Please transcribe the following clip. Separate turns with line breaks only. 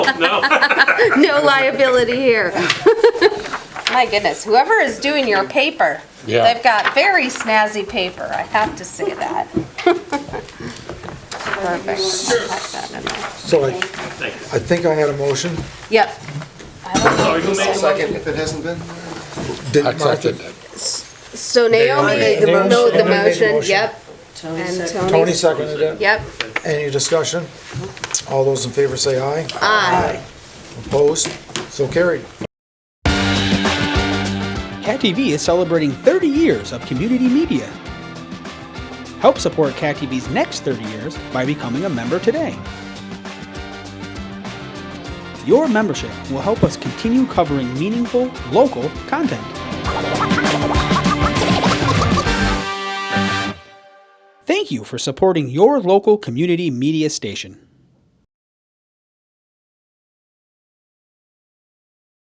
No liability here. My goodness, whoever is doing your paper,
Yeah.
they've got very snazzy paper, I have to say that. Perfect.
So I, I think I had a motion.
Yep.
Second, if it hasn't been.
Did
I
Martha-
accepted that.
So Naomi made the
Naomi-
mo- the
Naomi made the
motion,
motion.
yep. And
Tony
Tony,
seconded it.
yep,
Any discussion? All those in favor say aye.
aye.
Opposed? So carried.
Cat TV is celebrating 30 years of community media. Help support Cat TV's next 30 years by becoming a member today. Your membership will help us continue covering meaningful, local content. Thank you for supporting your local community media station.